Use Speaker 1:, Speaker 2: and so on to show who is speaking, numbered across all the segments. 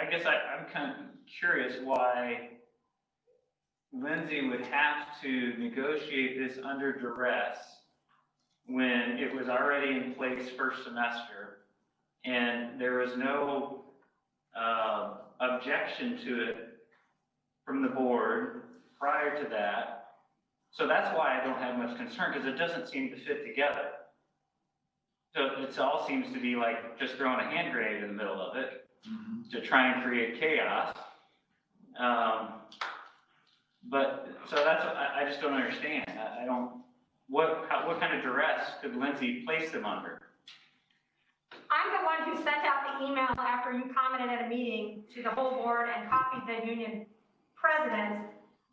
Speaker 1: I guess I, I'm kind of curious why Lindsay would have to negotiate this under duress when it was already in place first semester and there was no, uh, objection to it from the board prior to that. So that's why I don't have much concern because it doesn't seem to fit together. So it all seems to be like just throwing a hand grenade in the middle of it to try and create chaos. Um, but, so that's, what I, I just don't understand. I, I don't, what, how, what kind of duress could Lindsay place them under?
Speaker 2: I'm the one who sent out the email after you commented at a meeting to the whole board and copied the union presidents,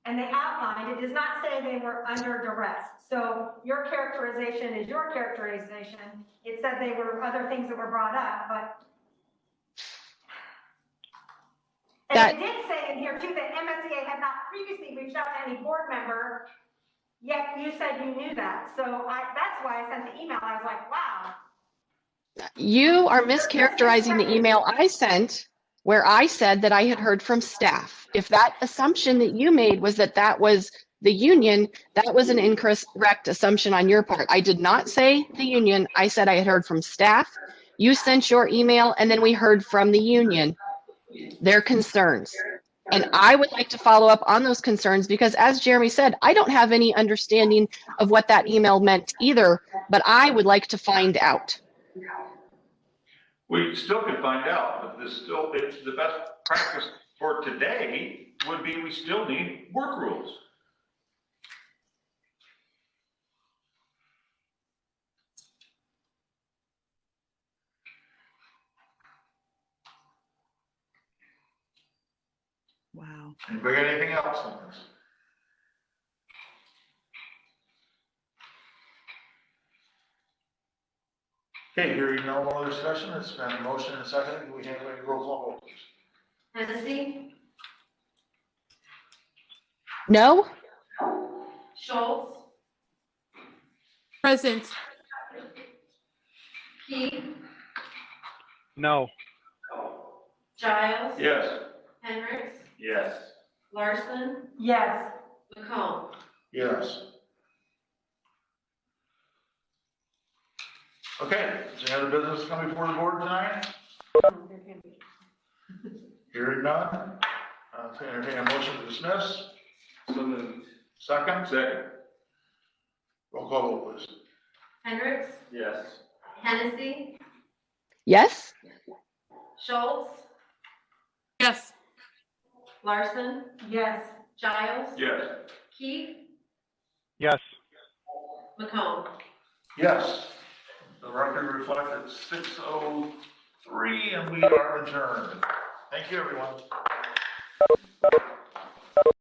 Speaker 2: and they outlined, it does not say they were under duress. So your characterization is your characterization. It said they were other things that were brought up, but. And it did say in here too that MSEA had not previously reached out to any board member, yet you said you knew that. So I, that's why I sent the email. I was like, wow,
Speaker 3: You are mischaracterizing the email I sent where I said that I had heard from staff. If that assumption that you made was that that was the union, that was an incorrect assumption on your part. I did not say the union. I said I had heard from staff. You sent your email and then we heard from the union, their concerns. And I would like to follow up on those concerns because as Jeremy said, I don't have any understanding of what that email meant either, but I would like to find out.
Speaker 4: We still can find out, but this still, it's the best practice for today would be we still need work rules.
Speaker 5: Wow.
Speaker 4: Anybody got anything else on this? Okay, hearing no more discussion, it's been a motion and a second, we have a roll call vote.
Speaker 6: Hennessy,
Speaker 3: No?
Speaker 6: Schultz,
Speaker 5: Present.
Speaker 6: Key,
Speaker 7: No.
Speaker 6: Giles,
Speaker 4: Yes.
Speaker 6: Hendricks,
Speaker 4: Yes.
Speaker 6: Larson,
Speaker 2: yes.
Speaker 6: McComb.
Speaker 4: Yes. Okay, is there other business coming before the board tonight? Hearing none, I'll entertain a motion to dismiss.
Speaker 1: So moved.
Speaker 4: Second? Second. Roll call vote, please.
Speaker 6: Hendricks,
Speaker 1: Yes.
Speaker 6: Hennessy,
Speaker 3: Yes?
Speaker 6: Schultz,
Speaker 5: Yes.
Speaker 6: Larson,
Speaker 2: Yes,
Speaker 6: Giles,
Speaker 4: Yes.
Speaker 6: Key,
Speaker 7: Yes.
Speaker 6: McComb.
Speaker 4: Yes. The record reflected six oh three, and we are adjourned. Thank you, everyone.